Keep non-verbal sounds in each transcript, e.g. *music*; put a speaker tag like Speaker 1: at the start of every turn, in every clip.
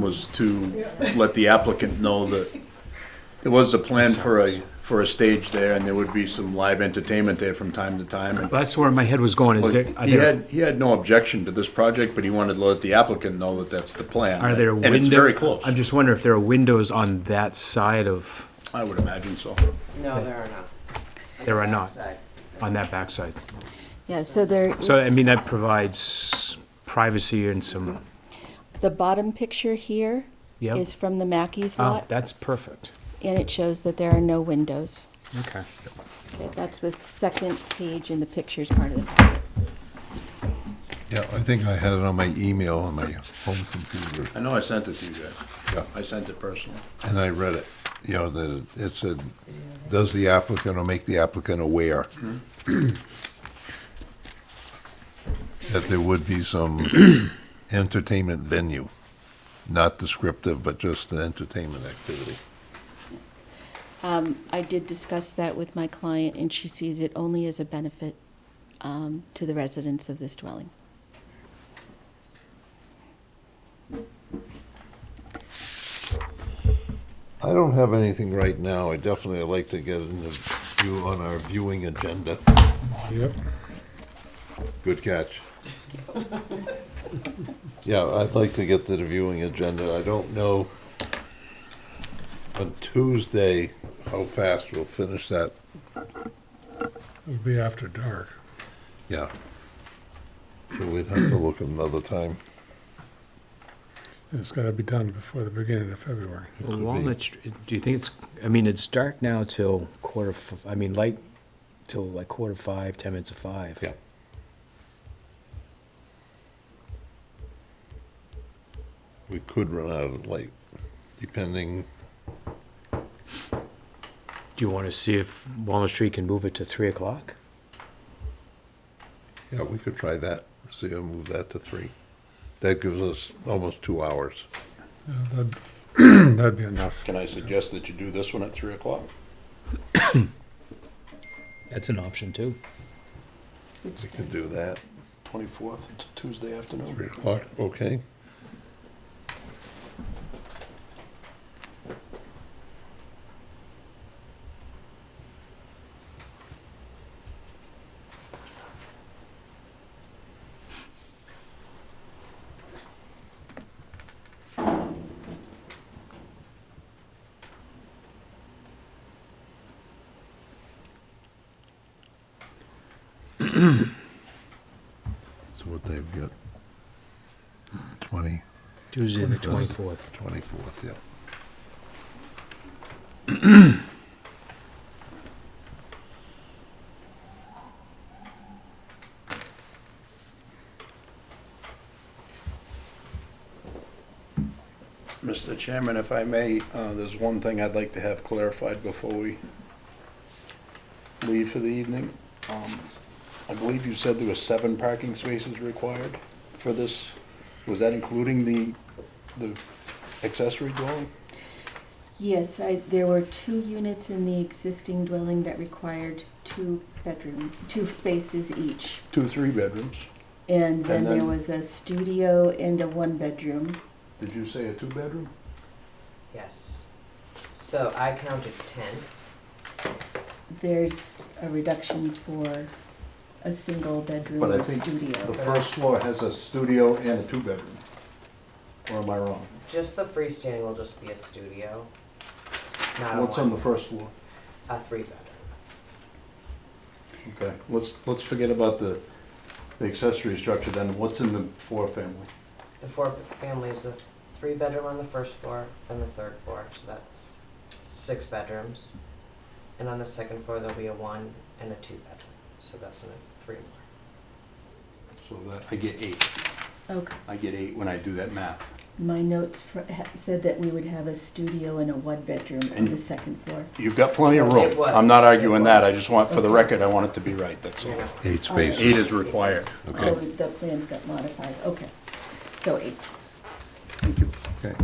Speaker 1: was to let the applicant know that it was a plan for a, for a stage there, and there would be some live entertainment there from time to time. and-
Speaker 2: That's where my head was going, is there, are
Speaker 1: He
Speaker 2: there,
Speaker 1: had, he had no objection to this project, but he wanted to let the applicant know that that's the plan.
Speaker 2: are there windows?
Speaker 1: And it's very close,
Speaker 2: I'm just wondering if there are windows on that side of,
Speaker 1: I would imagine so.
Speaker 3: No, there are not.
Speaker 2: there are not,
Speaker 3: Outside.
Speaker 2: on that backside.
Speaker 4: Yeah, so there is.
Speaker 2: So, I mean, that provides privacy and some,
Speaker 4: The bottom picture here
Speaker 2: Yep.
Speaker 4: is from the Mackey's
Speaker 2: oh,
Speaker 4: lot,
Speaker 2: that's perfect.
Speaker 4: and it shows that there are no windows.
Speaker 2: Okay.
Speaker 4: Okay, That's the second page in the pictures part of the packet.
Speaker 5: Yeah, I think I had it on my email on my home computer,
Speaker 1: I know I sent it to you guys.
Speaker 5: Yeah.
Speaker 1: I sent it personally.
Speaker 5: and I read it. You know, that it- it said, does the applicant or make the applicant aware that there would be some entertainment venue, not descriptive, but just an entertainment activity.
Speaker 4: I did discuss that with my client, and she sees it only as a benefit um, to the residents of this dwelling.
Speaker 5: I don't have anything right now. I definitely would like to get into view on our viewing agenda.
Speaker 6: Yep.
Speaker 5: Good catch. Yeah, I'd like to get to the viewing agenda. I don't know on Tuesday how fast we'll finish that.
Speaker 6: It'll be after dark.
Speaker 5: Yeah. So we'd have to look another time.
Speaker 6: It's gotta be done before the beginning of February.
Speaker 5: could be.
Speaker 2: Walnut, Str- do you think it's, I mean, it's dark now till quarter, f- I mean, light till like quarter five, ten minutes of five.
Speaker 5: Yeah. We could run out of light, depending,
Speaker 2: Do you want to see if Walnut Street can move it to three o'clock?
Speaker 5: yeah, we could try that, see, if we move that to three. That gives us almost two hours.
Speaker 6: You know, That'd *clears throat* that'd be enough.
Speaker 1: Can I suggest that you do this one at three o'clock?
Speaker 2: That's an option too.
Speaker 5: We could do that,
Speaker 1: Twenty-fourth, Tuesday afternoon.
Speaker 5: three o'clock, okay? So what they've got, twenty,
Speaker 2: Tuesday the
Speaker 5: 24th.
Speaker 2: twenty-fourth.
Speaker 5: twenty-fourth, yeah.
Speaker 1: Mr. Chairman, if I may, uh, there's one thing I'd like to have clarified before we leave for the evening. Um, I believe you said there were seven parking spaces required for this. Was that including the, the accessory dwelling?
Speaker 4: Yes, I, there were two units in the existing dwelling that required two bedroom, two spaces each.
Speaker 1: Two, three bedrooms.
Speaker 4: And then
Speaker 1: And
Speaker 4: there
Speaker 1: then-
Speaker 4: was a studio and a one-bedroom.
Speaker 1: Did you say a two-bedroom?
Speaker 3: Yes. So I counted ten.
Speaker 4: There's a reduction for a single-bedroom
Speaker 1: But I
Speaker 4: or
Speaker 1: think The
Speaker 4: studio.
Speaker 1: first floor has a studio and a two-bedroom. Or am I wrong?
Speaker 3: Just the freestanding will just be a studio. Not a
Speaker 1: What's on the
Speaker 3: one,
Speaker 1: first floor?
Speaker 3: a three bedroom.
Speaker 1: Okay, let's, let's forget about the, the accessory structure then. What's in the four-family?
Speaker 3: The four family is a three bedroom on the first floor and the third floor, so that's six bedrooms. And on the second floor, there'll be a one and a two bedroom, so that's an- three more.
Speaker 1: So that, I get eight.
Speaker 4: Okay,
Speaker 1: I get eight when I do that math.
Speaker 4: my notes fr- ha- said that we would have a studio and a one-bedroom on
Speaker 1: And-
Speaker 4: the second floor.
Speaker 1: You've got plenty of room.
Speaker 3: It was.
Speaker 1: I'm not arguing
Speaker 3: It
Speaker 1: that. I
Speaker 3: was.
Speaker 1: just want, for the record, I want it to be right, that's all.
Speaker 3: Yeah.
Speaker 5: Eight
Speaker 4: spaces.
Speaker 1: Eight is required.
Speaker 4: So the plans got modified, okay. So eight.
Speaker 1: Thank you.
Speaker 5: Okay.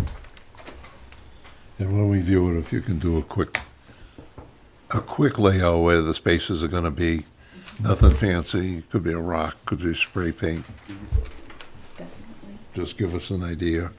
Speaker 5: And when we view it, if you can do a quick, a quick layout where the spaces are gonna be, nothing fancy, could be a rock, could be spray paint,
Speaker 4: Definitely.
Speaker 5: just give us an idea.